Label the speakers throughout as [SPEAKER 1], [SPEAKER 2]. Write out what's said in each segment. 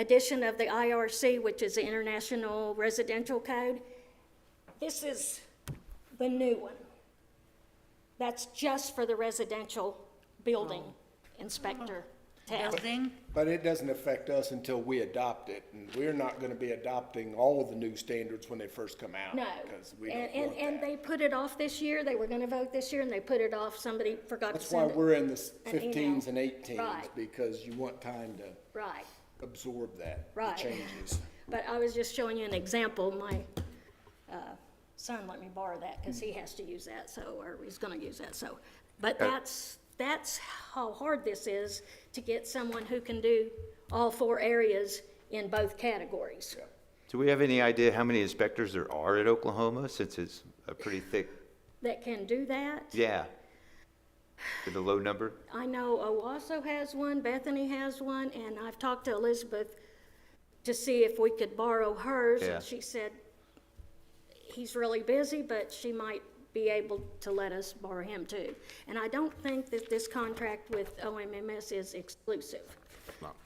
[SPEAKER 1] addition of the IRC, which is the International Residential Code. This is the new one. That's just for the residential building inspector tab.
[SPEAKER 2] building,
[SPEAKER 3] But it doesn't affect us until we adopt it, and we're not gonna be adopting all of the new standards when they first come out.
[SPEAKER 1] No.
[SPEAKER 3] Because we
[SPEAKER 1] And,
[SPEAKER 3] don't
[SPEAKER 1] and, and
[SPEAKER 3] want that.
[SPEAKER 1] they put it off this year. They were gonna vote this year and they put it off. Somebody forgot to
[SPEAKER 3] That's why
[SPEAKER 1] send it.
[SPEAKER 3] we're in the s-
[SPEAKER 1] an email.
[SPEAKER 3] fifteens and eighteens,
[SPEAKER 1] Right.
[SPEAKER 3] because you want time to
[SPEAKER 1] Right.
[SPEAKER 3] absorb that, the
[SPEAKER 1] Right.
[SPEAKER 3] changes.
[SPEAKER 1] But I was just showing you an example. My, uh, son let me borrow that because he has to use that, so, or he's gonna use that, so. But that's, that's how hard this is to get someone who can do all four areas in both categories.
[SPEAKER 4] Do we have any idea how many inspectors there are at Oklahoma, since it's a pretty thick,
[SPEAKER 1] That can do that.
[SPEAKER 4] yeah? With a low number?
[SPEAKER 1] I know Owasso has one, Bethany has one, and I've talked to Elizabeth to see if we could borrow hers,
[SPEAKER 4] Yeah.
[SPEAKER 1] and she said he's really busy, but she might be able to let us borrow him too. And I don't think that this contract with OMMS is exclusive.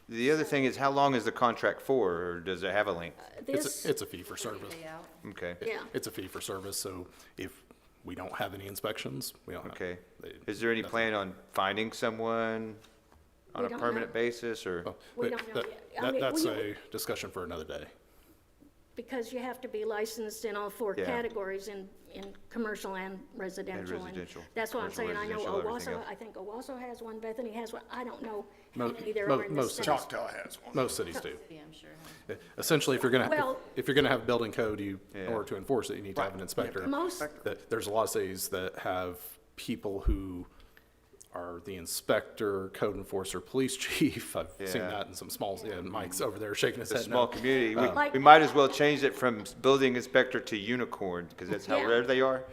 [SPEAKER 4] The other thing is, how long is the contract for, or does it have a length?
[SPEAKER 5] It's,
[SPEAKER 1] This,
[SPEAKER 5] a- it's a fee for service.
[SPEAKER 2] yeah.
[SPEAKER 4] Okay,
[SPEAKER 1] yeah,
[SPEAKER 5] It's a fee for service, so if we don't have any inspections, we don't have.
[SPEAKER 4] okay.
[SPEAKER 5] they-
[SPEAKER 4] Is there any plan on finding someone
[SPEAKER 1] We
[SPEAKER 4] on a
[SPEAKER 1] don't know.
[SPEAKER 4] permanent basis, or?
[SPEAKER 1] We
[SPEAKER 5] but
[SPEAKER 1] don't know
[SPEAKER 5] that-
[SPEAKER 1] yet. I
[SPEAKER 5] that-
[SPEAKER 1] mean,
[SPEAKER 5] That's
[SPEAKER 1] we-
[SPEAKER 5] a discussion for another day.
[SPEAKER 1] because you have to be licensed in all four
[SPEAKER 4] Yeah.
[SPEAKER 1] categories in, in commercial and residential.
[SPEAKER 4] residential.
[SPEAKER 1] That's what I'm
[SPEAKER 4] Commercial,
[SPEAKER 1] saying, I know
[SPEAKER 4] residential, everything
[SPEAKER 1] Owasso,
[SPEAKER 4] else.
[SPEAKER 1] I think Owasso has one, Bethany has one, I don't know how
[SPEAKER 5] Mo-
[SPEAKER 1] many there
[SPEAKER 5] mo-
[SPEAKER 1] are in the
[SPEAKER 5] most
[SPEAKER 1] state.
[SPEAKER 3] Choctaw has one.
[SPEAKER 5] Most cities do. Eh,
[SPEAKER 2] Yeah, I'm sure. huh?
[SPEAKER 5] Essentially, if you're gonna,
[SPEAKER 1] Well-
[SPEAKER 5] if- if you're gonna have building code, you, in
[SPEAKER 4] Yeah.
[SPEAKER 5] order to enforce it, you need to have an inspector.
[SPEAKER 1] Most-
[SPEAKER 5] That- There's a lot of cities that have people who are the inspector, code enforcer, police chief. I've seen
[SPEAKER 4] Yeah.
[SPEAKER 5] that in some small, yeah, Mike's over there shaking his
[SPEAKER 4] A
[SPEAKER 5] head.
[SPEAKER 4] small
[SPEAKER 5] no.
[SPEAKER 4] community, we,
[SPEAKER 1] Like-
[SPEAKER 4] we might as well change it from s- building inspector to unicorn, because that's how
[SPEAKER 1] Yeah.
[SPEAKER 4] rare they are.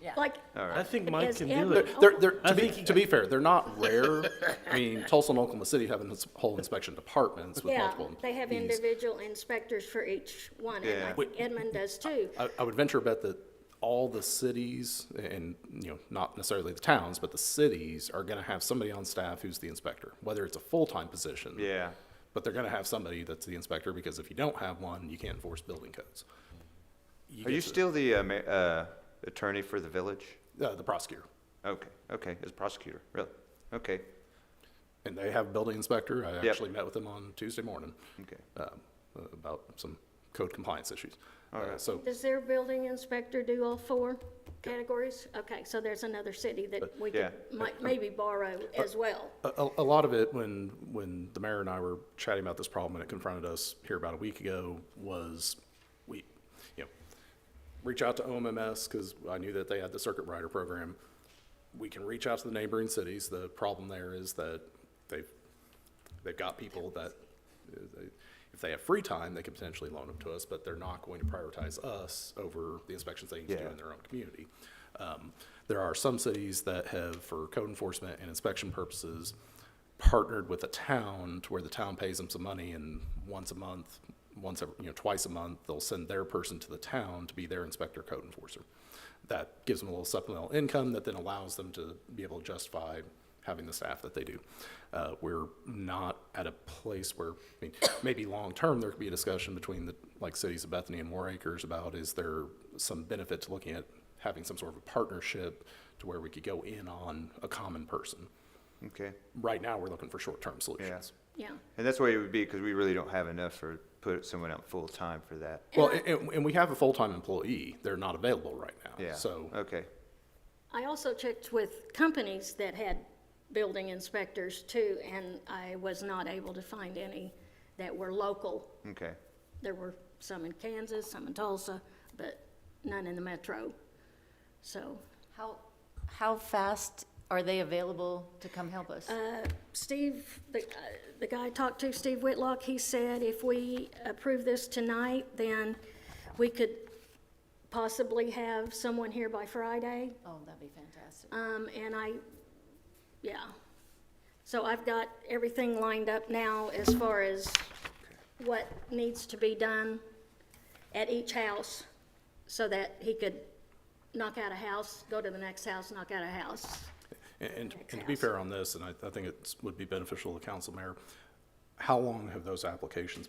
[SPEAKER 5] Mm-hmm.
[SPEAKER 1] Like,
[SPEAKER 6] I think Mike
[SPEAKER 1] Is
[SPEAKER 6] can
[SPEAKER 1] Ed-
[SPEAKER 6] do
[SPEAKER 5] They're,
[SPEAKER 6] it.
[SPEAKER 5] they're, they're, to
[SPEAKER 6] I
[SPEAKER 5] be,
[SPEAKER 6] think he
[SPEAKER 5] to be fair, they're not rare. I mean, Tulsa and Oklahoma City have ins- whole inspection departments with
[SPEAKER 1] yeah,
[SPEAKER 5] multiple employees.
[SPEAKER 1] they have individual inspectors for each one, and I
[SPEAKER 4] Yeah.
[SPEAKER 1] think Edmund does too.
[SPEAKER 5] I, I would venture a bet that all the cities and, you know, not necessarily the towns, but the cities are gonna have somebody on staff who's the inspector, whether it's a full-time position.
[SPEAKER 4] Yeah.
[SPEAKER 5] But they're gonna have somebody that's the inspector, because if you don't have one, you can't enforce building codes.
[SPEAKER 4] Are you
[SPEAKER 5] get to-
[SPEAKER 4] still the, uh, ma- uh, attorney for the village?
[SPEAKER 5] Uh, the prosecutor.
[SPEAKER 4] Okay, okay, as prosecutor, really? Okay,
[SPEAKER 5] And they have a building inspector. I
[SPEAKER 4] Yep.
[SPEAKER 5] actually met with them on Tuesday morning.
[SPEAKER 4] okay.
[SPEAKER 5] um, about some code compliance issues. Uh, So,
[SPEAKER 1] Does their building inspector do all four categories? Okay, so there's another city that we could,
[SPEAKER 4] yeah.
[SPEAKER 1] might, maybe borrow as well.
[SPEAKER 5] a- a, a lot of it, when, when the mayor and I were chatting about this problem and it confronted us here about a week ago, was we, you know, reach out to OMMS, because I knew that they had the circuit rider program. We can reach out to the neighboring cities. The problem there is that they've, they've got people that, uh, they- if they have free time, they could potentially loan them to us, but they're not going to prioritize us over the inspections they need to do
[SPEAKER 4] Yeah.
[SPEAKER 5] in their own community. Um, There are some cities that have, for code enforcement and inspection purposes, partnered with a town to where the town pays them some money and once a month, once, every- you know, twice a month, they'll send their person to the town to be their inspector code enforcer. That gives them a little supplemental income that then allows them to be able to justify having the staff that they do. Uh, we're not at a place where, I mean, maybe long-term, there could be a discussion between the, like, cities of Bethany and War Acres about is there some benefit to looking at having some sort of a partnership to where we could go in on a common person.
[SPEAKER 4] Okay,
[SPEAKER 5] Right now, we're looking for short-term solutions.
[SPEAKER 1] Yeah,
[SPEAKER 4] and that's the way it would be, because we really don't have enough for, put someone out full-time for that.
[SPEAKER 5] Well, a- and, and we have a full-time employee. They're not available right now.
[SPEAKER 4] Yeah,
[SPEAKER 5] So,
[SPEAKER 4] okay,
[SPEAKER 1] I also checked with companies that had building inspectors too, and I was not able to find any that were local.
[SPEAKER 4] okay,
[SPEAKER 1] There were some in Kansas, some in Tulsa, but none in the metro. So
[SPEAKER 2] How, how fast are they available to come help us?
[SPEAKER 1] Steve, the, uh, the guy I talked to, Steve Whitlock, he said if we approve this tonight, then we could possibly have someone here by Friday.
[SPEAKER 2] Oh, that'd be fantastic.
[SPEAKER 1] Um, and I, yeah. So I've got everything lined up now as far as what needs to be done at each house so that he could knock out a house, go to the next house, knock out a house.
[SPEAKER 5] and, and and to be fair on this, and I, I think it would be beneficial to council mayor, how long have those applications been